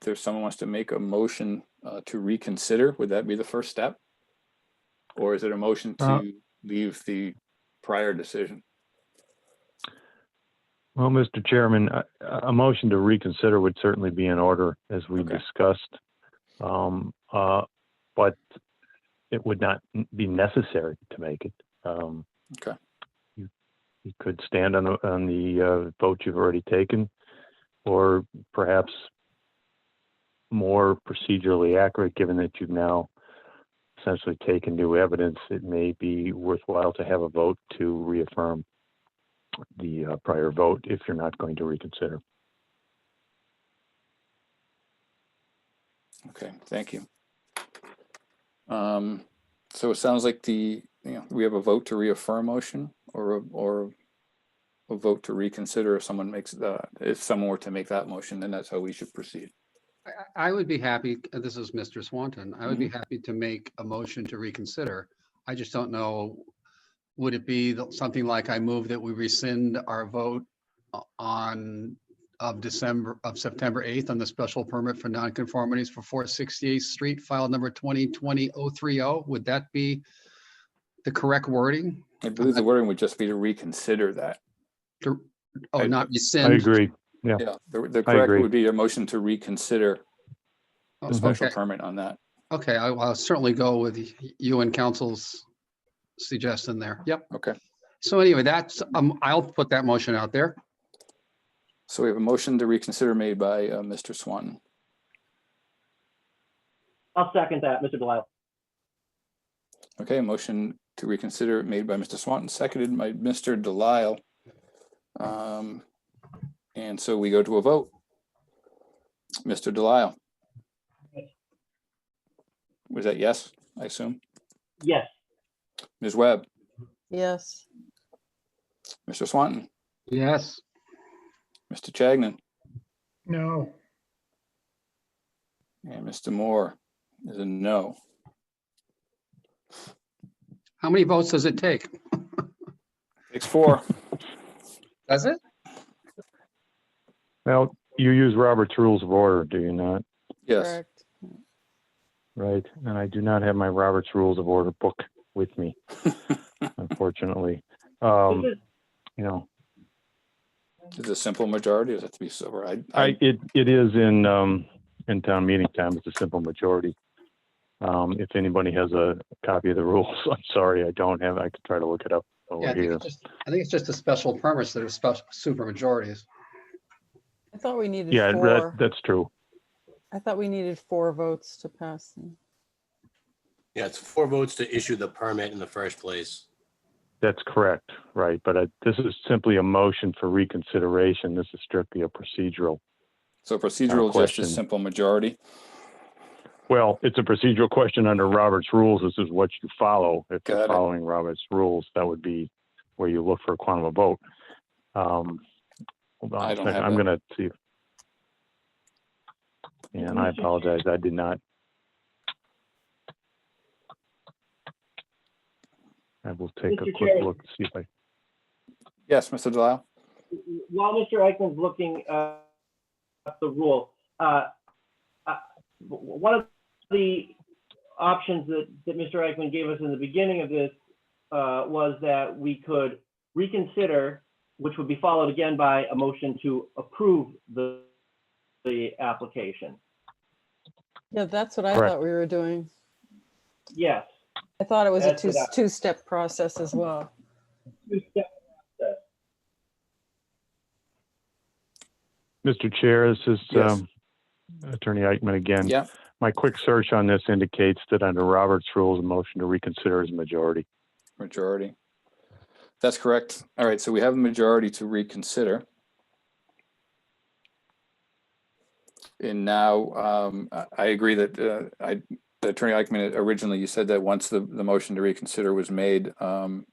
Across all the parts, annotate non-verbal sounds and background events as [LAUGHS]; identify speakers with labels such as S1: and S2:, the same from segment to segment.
S1: there's someone wants to make a motion uh, to reconsider, would that be the first step? Or is it a motion
S2: Uh,
S1: to leave the prior decision?
S2: Well, Mr. Chairman, a, a motion to reconsider would certainly be in order as we
S1: Okay.
S2: discussed. Um, uh, but it would not n- be necessary to make it. Um,
S1: Okay.
S2: You, you could stand on, the- on the, uh, vote you've already taken, or perhaps more procedurally accurate, given that you've now essentially taken new evidence, it may be worthwhile to have a vote to reaffirm the uh, prior vote if you're not going to reconsider.
S1: Okay, thank you. Um, so it sounds like the, you know, we have a vote to reaffirm motion or, a- or a vote to reconsider if someone makes the, if someone were to make that motion, then that's how we should proceed.
S3: I- I I would be happy, uh, this is Mr. Swanton, I would be happy to make a motion to reconsider. I just don't know, would it be th- something like I move that we rescind our vote o- on, of December, of September 8th on the special permit for nonconformities for 468 Street, file number 2020-030? oh? Would that be the correct wording?
S1: I believe the wording would just be to reconsider that.
S3: To-
S1: I-
S3: Oh, not
S2: I
S3: rescind?
S2: agree.
S1: Yeah, the, the correct
S2: agree.
S1: would be a motion to reconsider
S3: Oh,
S1: the special
S3: okay.
S1: permit on that.
S3: Okay, I- I'll certainly go with y- you and council's suggestion there. Yep.
S1: Okay,
S3: So anyway, that's, um, I'll put that motion out there.
S1: so we have a motion to reconsider made by uh, Mr. Swanton,
S4: I'll second that, Mr. Delisle.
S1: Okay, a motion to reconsider made by Mr. Swanton, seconded by Mr. Delisle. Um, And so we go to a vote. Mr. Delisle. Was that yes, I assume?
S4: Yes,
S1: Ms. Webb,
S5: Yes,
S1: Mr. Swanton,
S3: Yes.
S1: Mr. Chagnon,
S6: No,
S1: and Mr. Moore is a no.
S3: How many votes does it take?
S1: Six, four.
S3: Does it?
S2: Well, you use Robert's Rules of Order, do you not?
S1: Yes,
S5: correct.
S2: Right? And I do not have my Robert's Rules of Order book with me, unfortunately. Um,
S4: this is,
S2: you know,
S1: is it a simple majority? Does it have to be sober? I,
S2: I,
S1: I,
S2: it, it is in, um, in town meeting time. It's a simple majority. Um, if anybody has a copy of the rules, [LAUGHS] I'm sorry, I don't have, I could try to look it up
S3: Yeah,
S2: over
S3: I think
S2: here.
S3: it's just, I think it's just the special permits that are special, super majorities.
S5: I thought we needed
S2: Yeah, that,
S5: four.
S2: that's true.
S5: I thought we needed four votes to pass. them.
S7: Yeah, it's four votes to issue the permit in the first place.
S2: That's correct, right, but I- this is simply a motion for reconsideration. This is strictly a procedural.
S1: so procedural, just
S2: question.
S1: a simple majority.
S2: Well, it's a procedural question under Robert's rules. This is what you follow. If
S1: Got
S2: you're
S1: it.
S2: following Robert's rules, that would be where you look for a quantum of vote. Um, Hold on
S1: I
S2: a
S1: don't
S2: second,
S1: have
S2: I'm
S1: that.
S2: gonna see. if- And I apologize, I did not. I will take a
S4: Mr.
S2: quick
S4: Chair.
S2: look, to see if I
S1: Yes, Mr. Delisle?
S4: while Mr. Eichmann's looking uh, at the rule, uh, uh, w- one of the options that, that Mr. Eichmann gave us in the beginning of this uh, was that we could reconsider, which would be followed again by a motion to approve the, the application.
S5: Yeah, that's what I
S2: Correct.
S5: thought we were doing.
S4: Yes.
S5: I thought it was a
S4: That's
S5: two,
S4: what I-
S5: two-step process as well.
S2: Mr. Chair, this is
S1: Yes.
S2: um, Attorney Eichman again.
S1: Yeah.
S2: My quick search on this indicates that under Robert's rules, a motion to reconsider is majority.
S1: Majority. That's correct. All right, so we have a majority to reconsider. And now, um, I, I agree that, uh, I, the Attorney Eichman, originally you said that once the, the motion to reconsider was made, um,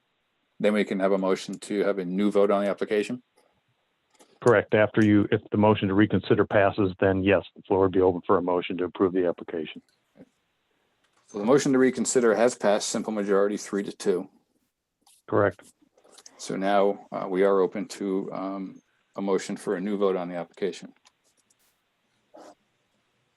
S1: then we can have a motion to have a new vote on the application.
S2: Correct. After you, if the motion to reconsider passes, then yes, the floor would be open for a motion to approve the application.
S1: So the motion to reconsider has passed simple majority, three to two.
S2: Correct.
S1: So now, uh, we are open to, um, a motion for a new vote on the application.